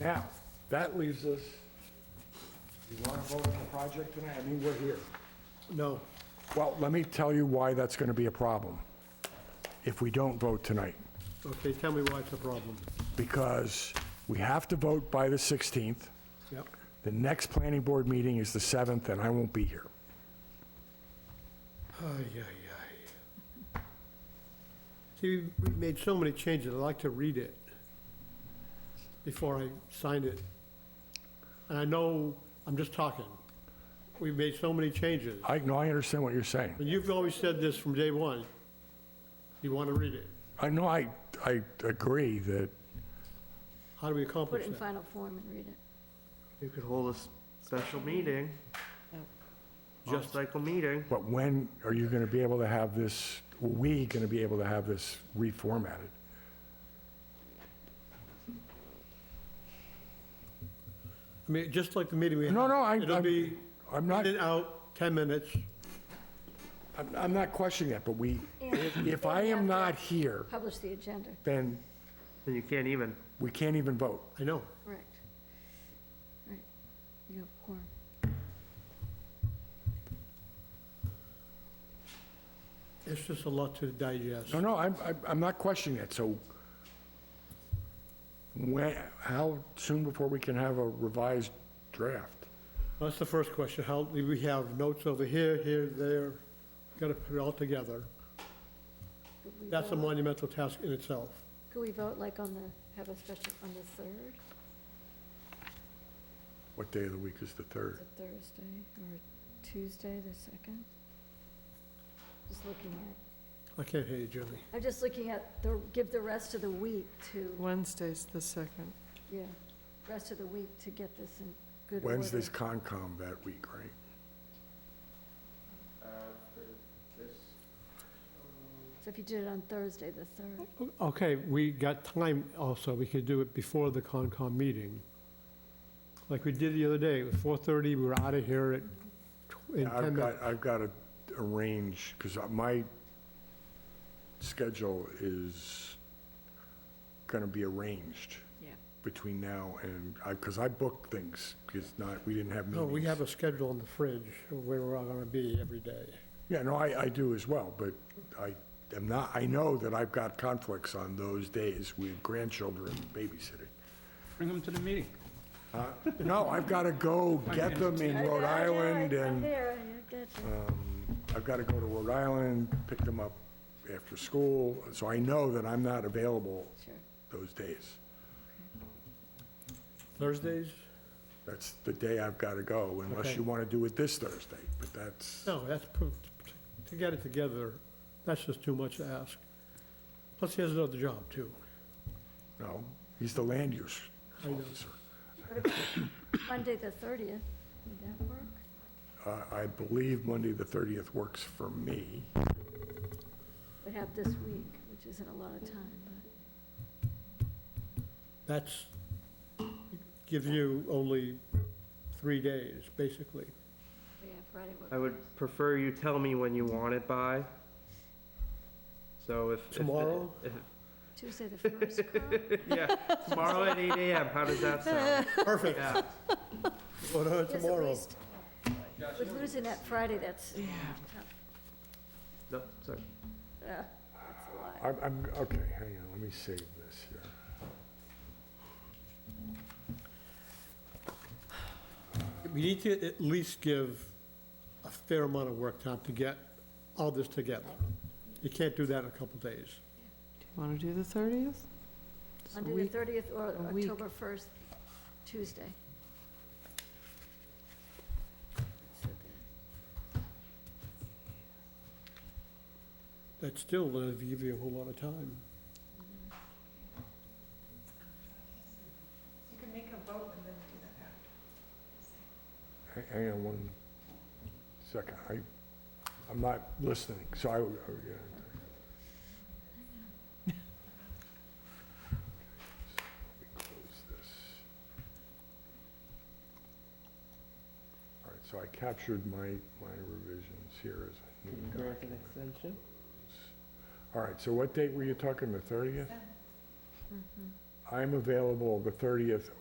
Now, that leaves us, you want to vote on the project tonight? I mean, we're here. No. Well, let me tell you why that's going to be a problem if we don't vote tonight. Okay, tell me why it's a problem. Because we have to vote by the 16th. Yep. The next planning board meeting is the 7th, and I won't be here. Ay, ay, ay. See, we've made so many changes, I'd like to read it before I sign it. And I know, I'm just talking, we've made so many changes. I, no, I understand what you're saying. And you've always said this from day one, you want to read it. I know, I, I agree that, How do we Put accomplish it in that? final form and read it. You could hold a s- special meeting. Just cycle meeting. but when are you going to be able to have this, we going to be able to have this reformatted? I mean, just like the meeting we had. No, no, I- It'll I'm- be I'm not, in, out, 10 minutes. I'm- I'm not questioning that, but we, And if I am not here, Publish the agenda, then Then you can't even. we can't even vote. I know. correct. Right, you have quorum. It's just a lot to digest. No, no, I'm, I'm- I'm not questioning that, so when, how soon before we can have a revised draft? That's the first question. How, we have notes over here, here, there, got to put it all together. Could we That's a vote- monumental task in itself. Could we vote like on the, have a special, on the third, What day of the week is the Is third? it Thursday or Tuesday, the second? Just looking at, I can't hear you, Julie. I'm just looking at the, give the rest of the week to, Wednesday's the second. yeah, rest of the week to get this in good order. Wednesday's Concom that week, right? So if you did it on Thursday, the third, Okay, we got time also. We could do it before the Concom meeting. Like we did the other day, it was 4:30, we were out of here at, tw- in Yeah, 10 I've minutes. got, I've got to arrange, because my schedule is going to be arranged Yeah. between now and, because I booked things, because not, we didn't have No, meetings. we have a schedule in the fridge of where we're all going to be every day. Yeah, no, I, I do as well, but I am not, I know that I've got conflicts on those days with grandchildren babysitting. Uh, Bring them to the meeting. No, I've got to go get them in Rhode Island I'm and um, there, I get you. I've got to go to Rhode Island, pick them up after school, so I know that I'm not available Sure. those days. Thursdays? That's the day I've got to go, unless Okay. you want to do it this Thursday, but that's, No, that's, pu- to get it together, that's just too much to ask. Plus, he has another job, too. no, he's the land use I know. officer. Monday, the 30th, would that work? Uh, I believe Monday, the 30th works for me. We have this week, which isn't a lot of time, but That's, gives you only three days, basically. we have Friday. I work. would prefer you tell me when you want it by. So if. if the- Tomorrow? if- Tuesday, the 1st, Carl? Yeah, tomorrow at eight AM. How does that sound? Perfect. Yeah. What on Yes, at tomorrow? least. We're losing that Friday, that's, tough. No, sorry. Uh, that's a lot. I'm, I'm, okay, hang on, let me save this here. We need to at least give a fair amount of work time to get all this together. You can't do that in a couple days. Do you want to do the 30th? It's a Monday, week. the 30th, or a week. October 1st, Tuesday. So the- That still doesn't give you a whole lot of time. Hang- Hang on one second, I, I'm not listening, so I, oh, yeah. Let me close this. All right, so I captured my, my revisions here as I Can you need. grant an extension? All right, so what date were you talking, the 30th? I'm available the 30th